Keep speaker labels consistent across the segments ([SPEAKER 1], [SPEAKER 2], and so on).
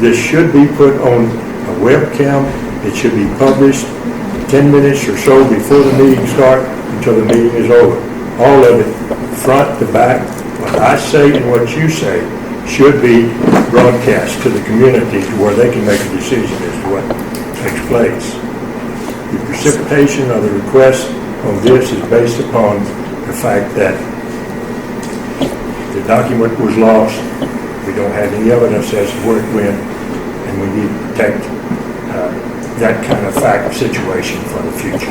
[SPEAKER 1] This should be put on a webcam. It should be published 10 minutes or so before the meeting starts until the meeting is over. All of it, front to back, what I say and what you say should be broadcast to the community to where they can make a decision as to what takes place. The precipitation of the request on this is based upon the fact that the document was lost. We don't have any evidence as to where it went, and we need to protect uh, that kind of fact situation for the future.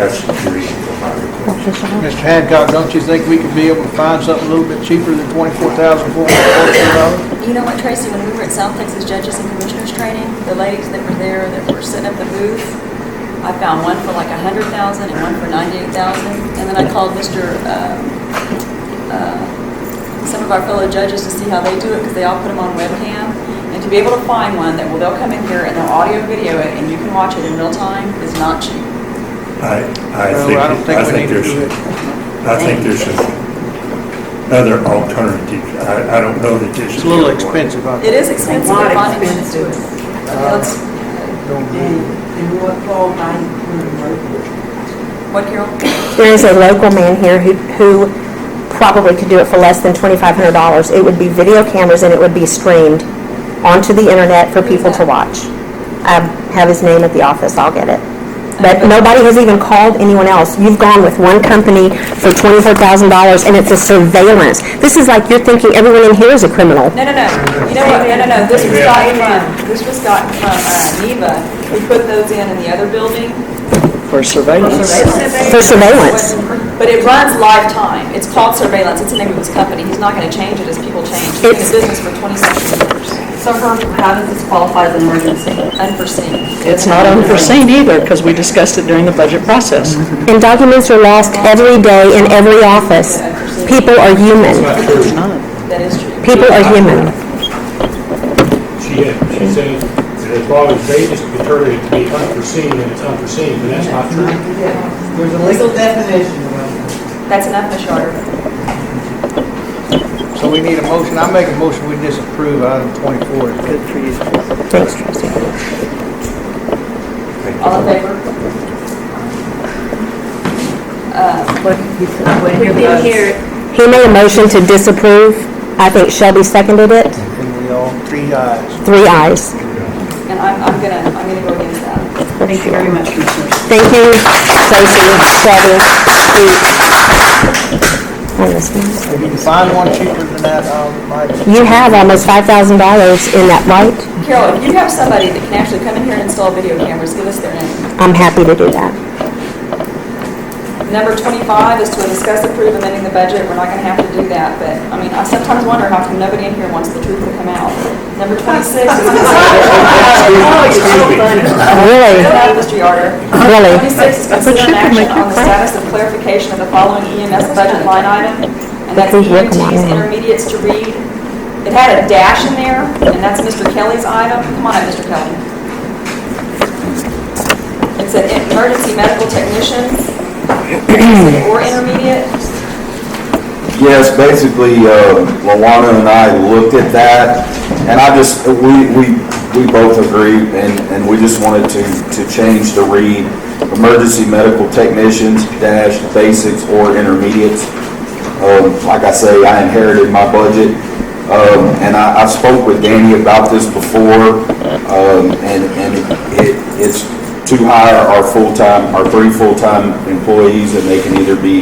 [SPEAKER 1] That's the reason for my request.
[SPEAKER 2] Mr. Hancock, don't you think we could be able to find something a little bit cheaper than twenty-four thousand four hundred and fourteen dollars?
[SPEAKER 3] You know what, Tracy, when we were at South Texas Judges and Commissioners Training, the ladies that were there that were setting up the booth, I found one for like a hundred thousand and one for ninety-eight thousand. And then I called Mr., uh, uh, some of our fellow judges to see how they do it, because they all put them on webcam. And to be able to find one that, well, they'll come in here and they'll audio video it and you can watch it in real time is not cheap.
[SPEAKER 1] I, I think,
[SPEAKER 2] Well, I don't
[SPEAKER 1] I
[SPEAKER 2] think we need
[SPEAKER 1] think
[SPEAKER 2] to
[SPEAKER 1] there's,
[SPEAKER 2] do it.
[SPEAKER 1] I think there's some other alternatives. I, I don't know that this is.
[SPEAKER 2] It's a little
[SPEAKER 1] the other one.
[SPEAKER 2] expensive, I
[SPEAKER 3] It is expensive,
[SPEAKER 4] A lot
[SPEAKER 3] but bonding is
[SPEAKER 4] expensive.
[SPEAKER 3] Let's-
[SPEAKER 2] don't
[SPEAKER 4] And,
[SPEAKER 2] believe.
[SPEAKER 4] and what Paul might want
[SPEAKER 3] What, Carol?
[SPEAKER 5] There is a local man here who, who probably could do it for less than twenty-five hundred dollars. It would be video cameras and it would be streamed onto the internet for people to watch. I have his name at the office, I'll get it. But nobody has even called anyone else. You've gone with one company for twenty-four thousand dollars and it's a surveillance. This is like you're thinking everyone in here is a criminal.
[SPEAKER 3] No, no, no. You know what? No, no, no. This was gotten from, this was gotten from uh, NEVA. We put those in in the other building.
[SPEAKER 6] For surveillance.
[SPEAKER 5] For surveillance.
[SPEAKER 3] But it runs lifetime. It's called surveillance. It's the name of his company. He's not going to change it as people change. He's been in
[SPEAKER 5] It's-
[SPEAKER 3] business for 27 years.
[SPEAKER 7] So for, how does this qualify as an emergency?
[SPEAKER 3] Unforeseen.
[SPEAKER 6] It's not unforeseen either, because we discussed it during the budget process.
[SPEAKER 5] And documents are lost every day in every office. People are human.
[SPEAKER 6] It's not.
[SPEAKER 3] That is true.
[SPEAKER 5] People are human.
[SPEAKER 8] She had, she said that as far as Vegas deterred it to be unforeseen, and it's unforeseen, but that's not true.
[SPEAKER 4] to do. Yeah, there's a legal definition of it.
[SPEAKER 3] That's enough, Ms. Yarder.
[SPEAKER 2] So we need a motion, I make a motion, we disapprove item twenty-four.
[SPEAKER 6] Good for you.
[SPEAKER 5] Thanks, trustee.
[SPEAKER 3] All in favor? Uh,
[SPEAKER 7] We didn't hear it.
[SPEAKER 5] He made a motion to disapprove. I think Shelby seconded it.
[SPEAKER 2] And we all, three ayes.
[SPEAKER 5] Three ayes.
[SPEAKER 3] And I'm, I'm going to, I'm going to go against that.
[SPEAKER 7] Thank you very much, Commissioners.
[SPEAKER 5] Thank you, Tracy, Shelby, Pete. And this one.
[SPEAKER 2] If you can find one cheaper than that, um, might.
[SPEAKER 5] You have almost five thousand dollars in that, right?
[SPEAKER 3] Carol, if you have somebody that can actually come in here and install video cameras, give us their name.
[SPEAKER 5] I'm happy to do that.
[SPEAKER 3] Number 25 is to discuss approve amending the budget. We're not going to have to do that, but, I mean, I sometimes wonder how come nobody in here wants the truth to come out. Number 26 is...
[SPEAKER 5] Really,
[SPEAKER 3] Go ahead, Mr. Yarder.
[SPEAKER 5] Really?
[SPEAKER 3] 26 is
[SPEAKER 6] But you
[SPEAKER 3] consider an
[SPEAKER 6] can
[SPEAKER 3] action
[SPEAKER 6] make your
[SPEAKER 3] on the
[SPEAKER 6] point.
[SPEAKER 3] status of clarification of the following EMS budget line item, and that's E
[SPEAKER 5] Please work on that
[SPEAKER 3] EMTs
[SPEAKER 5] one.
[SPEAKER 3] intermediates to read. It had a dash in there, and that's Mr. Kelly's item. Come on up, Mr. Kelly. It said emergency medical technicians, or intermediate.
[SPEAKER 9] Yes, basically, uh, Luana and I looked at that, and I just, we, we, we both agreed, and, and we just wanted to, to change the read, emergency medical technicians dash basics or intermediates. Um, like I say, I inherited my budget, um, and I, I spoke with Danny about this before, um, and, and it, it's to hire our full-time, our three full-time employees, and they can either be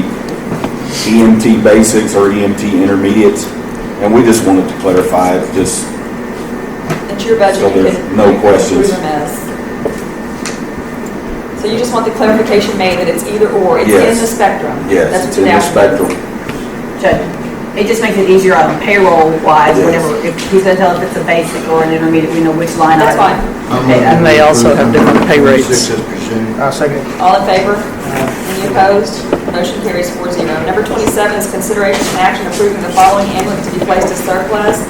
[SPEAKER 9] EMT E basics or EMT intermediates, and we just wanted to clarify, it, just,
[SPEAKER 3] It's your budget.
[SPEAKER 9] So
[SPEAKER 3] you
[SPEAKER 9] there's
[SPEAKER 3] can-
[SPEAKER 9] no
[SPEAKER 3] you can
[SPEAKER 9] questions.
[SPEAKER 3] approve them as. So you just want the clarification made that it's either or, it's in
[SPEAKER 9] Yes.
[SPEAKER 3] the spectrum? That's
[SPEAKER 9] yes,
[SPEAKER 3] what
[SPEAKER 9] it's in the
[SPEAKER 3] dash means.
[SPEAKER 9] spectrum.
[SPEAKER 7] Judge, it just makes it easier on payroll wise,
[SPEAKER 9] Yes.
[SPEAKER 7] whatever, if he's gonna tell us it's a basic or an intermediate, we know which line
[SPEAKER 3] That's
[SPEAKER 7] item.
[SPEAKER 3] fine.
[SPEAKER 6] And they also have different pay rates.
[SPEAKER 2] I second it.
[SPEAKER 3] All in favor? Any opposed? Motion carries four zero. Number 27 is consideration and action approving the following ambulance to be placed as surplus.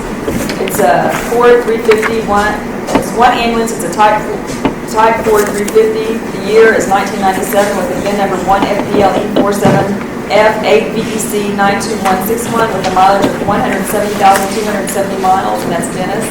[SPEAKER 3] It's a Ford 350, one, it's one ambulance, it's a type, type Ford 350. The year is 1997 with a VIN number E 1FPLE47F8VEC92161 with a mileage of 170,270 miles, and that's Dennis.